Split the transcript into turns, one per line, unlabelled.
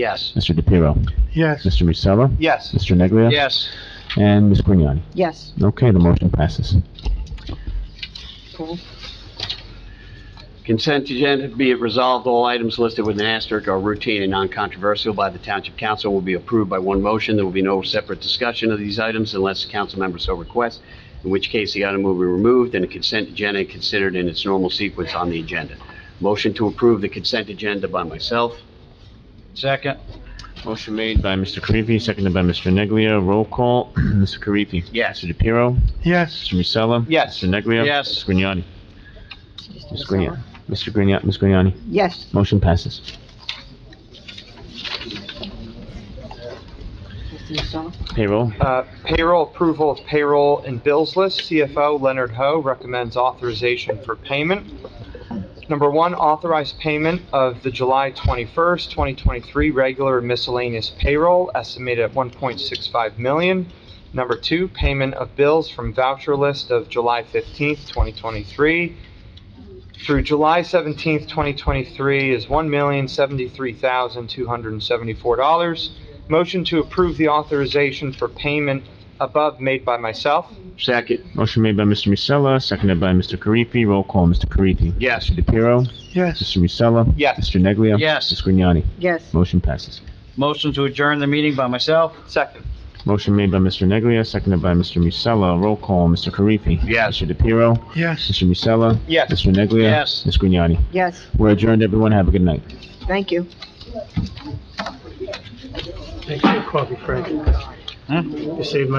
Yes.
Mr. DePiero,
Yes.
Mr. Musella,
Yes.
Mr. Neglia,
Yes.
and Ms. Grignani.
Yes.
Okay, the motion passes.
Consent agenda, be it resolved, all items listed with an asterisk are routine and non-controversial by the Township Council will be approved by one motion. There will be no separate discussion of these items unless the council member so requests, in which case the item will be removed and the consent agenda considered in its normal sequence on the agenda. Motion to approve the consent agenda by myself.
Second?
Motion made by Mr. Karifi, seconded by Mr. Neglia. Roll call, Mr. Karifi.
Yes.
Mr. DePiero,
Yes.
Mr. Musella.
Yes.
Mr. Neglia.
Yes.
Ms. Grignani. Ms. Grignani. Mr. Grignani, Ms. Grignani.
Yes.
Motion passes.
Mr. Musella?
Payroll,
Uh, Payroll approval of payroll and bills list. CFO Leonard Ho recommends authorization for payment. Number one, authorize payment of the July 21st, 2023 regular miscellaneous payroll estimated at 1.65 million. Number two, payment of bills from voucher list of July 15th, 2023 through July 17th, 2023 is $1,073,274. Motion to approve the authorization for payment above made by myself.
Second.
motion made by Mr. Musella, seconded by Mr. Karifi. Roll call, Mr. Karifi.
Yes.
Mr. DePiero,
Yes.
Mr. Musella.
Yes.
Mr. Neglia.
Yes.
Ms. Grignani.
Yes.
Motion passes.
Motion to adjourn the meeting by myself?
Second.
Motion made by Mr. Neglia, seconded by Mr. Musella. Roll call, Mr. Karifi.
Yes.
Mr. DePiero,
Yes.
Mr. Musella.
Yes.
Mr. Neglia.
Yes.
Ms. Grignani.
Yes.
We're adjourned, everyone. Have a good night.
Thank you.
Thanks for your coffee, Frank.
Huh?
You saved my